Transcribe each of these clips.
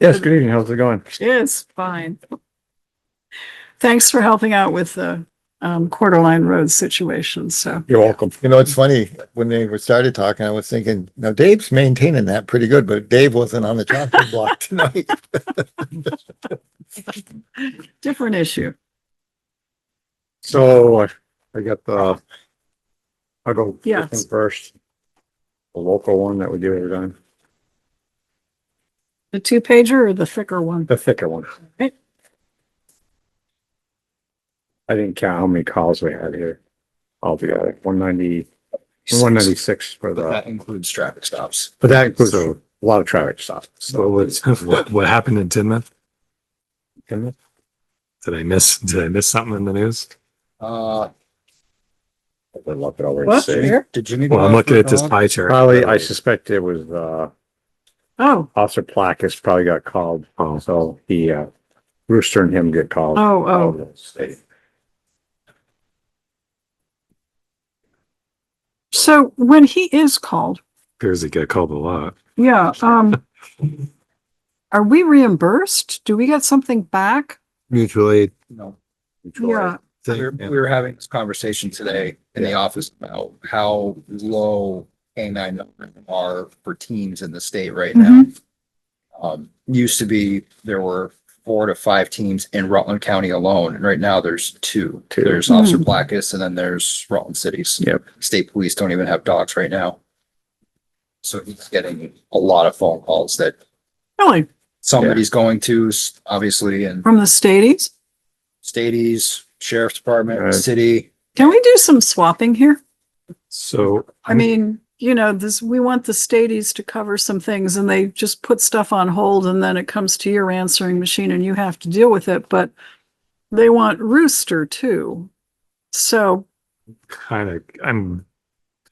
Yes, good evening. How's it going? It's fine. Thanks for helping out with the um quarter line road situation, so. You're welcome. You know, it's funny, when they were started talking, I was thinking, now Dave's maintaining that pretty good, but Dave wasn't on the chopping block tonight. Different issue. So I I got the, I'll go Yes. this one first. The local one that we do every time, The two pager or the thicker one? the thicker one. Right. I didn't count how many calls we had here. Altogether, one ninety, one ninety-six for But the, that includes traffic stops. but that includes a lot of traffic stops. So what, what, what happened in Tinmouth? Did I miss, did I miss something in the news? Uh, I'll look it over and What? see. Where? did you need? Well, I'm looking at this pie chart. Probably, I suspect it was, uh, Oh, Officer Placus probably got called, Oh. so he, uh, Rooster and him get called. oh, oh, so when he is called, Appears it got called a lot. yeah, um. Are we reimbursed? Do we get something back? Mutual aid. No. Yeah, We were, we were having this conversation today in the office about how low K nine are for teams in the state right now. Mm-hmm. Um, used to be, there were four to five teams in Rutland County alone, and right now there's two. Two. Mm-hmm. There's Hmm. Officer Blackus and then there's Rutland Cities. Yep. State police don't even have dogs right now. So he's getting a lot of phone calls that really, somebody's going to, s- obviously, and from the stadies? Stadies, Sheriff's Right. Department, City. Can we do some swapping here? So. I mean, you know, this, we want the stadies to cover some things and they just put stuff on hold and then it comes to your answering machine and you have to deal with it, but they want Rooster too. So, Kind of, I'm,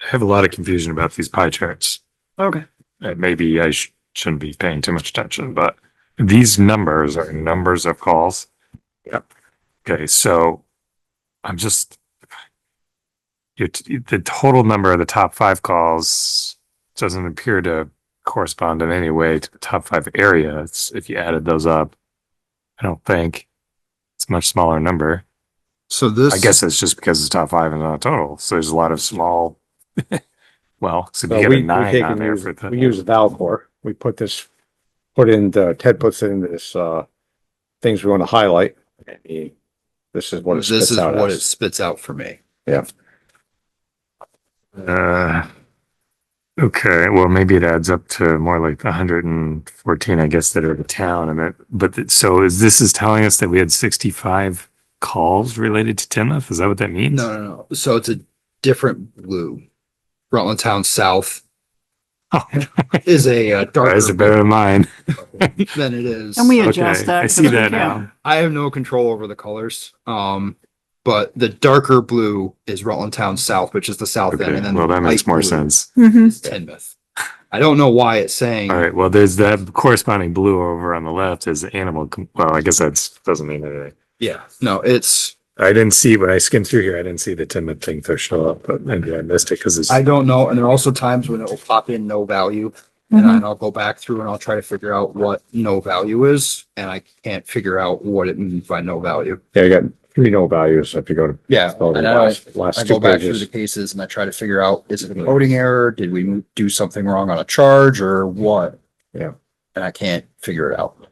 I have a lot of confusion about these pie charts. okay, Uh, maybe I sh- shouldn't be paying too much attention, but these numbers are numbers of calls. Yep. Okay, so I'm just your t- the total number of the top five calls doesn't appear to correspond in any way to the top five areas. If you added those up, I don't think it's a much smaller number. So this. I guess it's just because it's top five and not total. So there's a lot of small. well, so So you we, get we a nine take on and there use, for the. we use Valcor. We put this, put in the, Ted puts in this, uh, things we want to highlight. and he- This is what it This is spits out what it as. spits out for me. Uh, okay, well, maybe it adds up to more like hundred and fourteen, I guess, that are the town and it, but th- so is this is telling us that we had sixty-five calls related to Timoth? Is that what that means? No, no, no. So it's a different blue. Rutland Town South Oh, is a uh, darker Guys are better than mine. blue than it is. and we Okay, adjust that. I 'cause see we that can't. now. I have no control over the colors. Um, but the darker blue is Rutland Town South, which is the south end, Okay, and then well, that makes light more blue sense. Mhm. is Teignmouth. I don't know why it's saying. All right, well, there's that corresponding blue over on the left is animal. com- Well, I guess that's, doesn't mean anything. Yeah, no, it's. I didn't see, when I skimmed through here, I didn't see the Timoth thing to show up, but maybe I missed it because it's. I don't know, and there are also times when it will pop in no value, and Mhm. then I'll go back through and I'll try to figure out what no value is, and I can't figure out what it means by no value. Yeah, you got three no values if you go to Yeah, go to and the I, last, I last go two back through the pages. cases and I try to figure out, is it a coding error? Did we mo- do something wrong on a charge or what? Yeah. And I can't figure it out.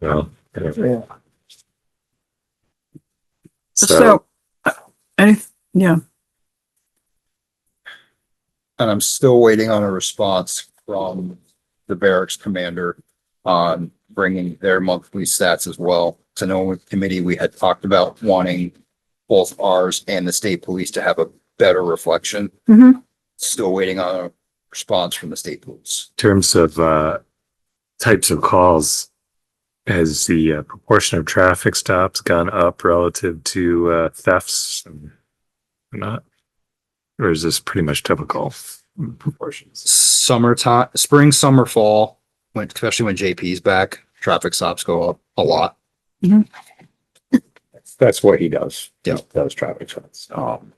Well, anyway. So, any, yeah, And I'm still waiting on a response from the barracks commander on bringing their monthly stats as well. To know with committee, we had talked about wanting both ours and the state police to have a better reflection. Mhm. Still waiting on a response from the state police. terms of uh, types of calls, has the uh, proportion of traffic stops gone up relative to uh, thefts and not? Or is this pretty much typical proportions? summertime, spring, summer, fall, when, especially when JP's back, traffic stops go up a lot. That's what he does. He Yeah. Oh. Does traffic stops. Um,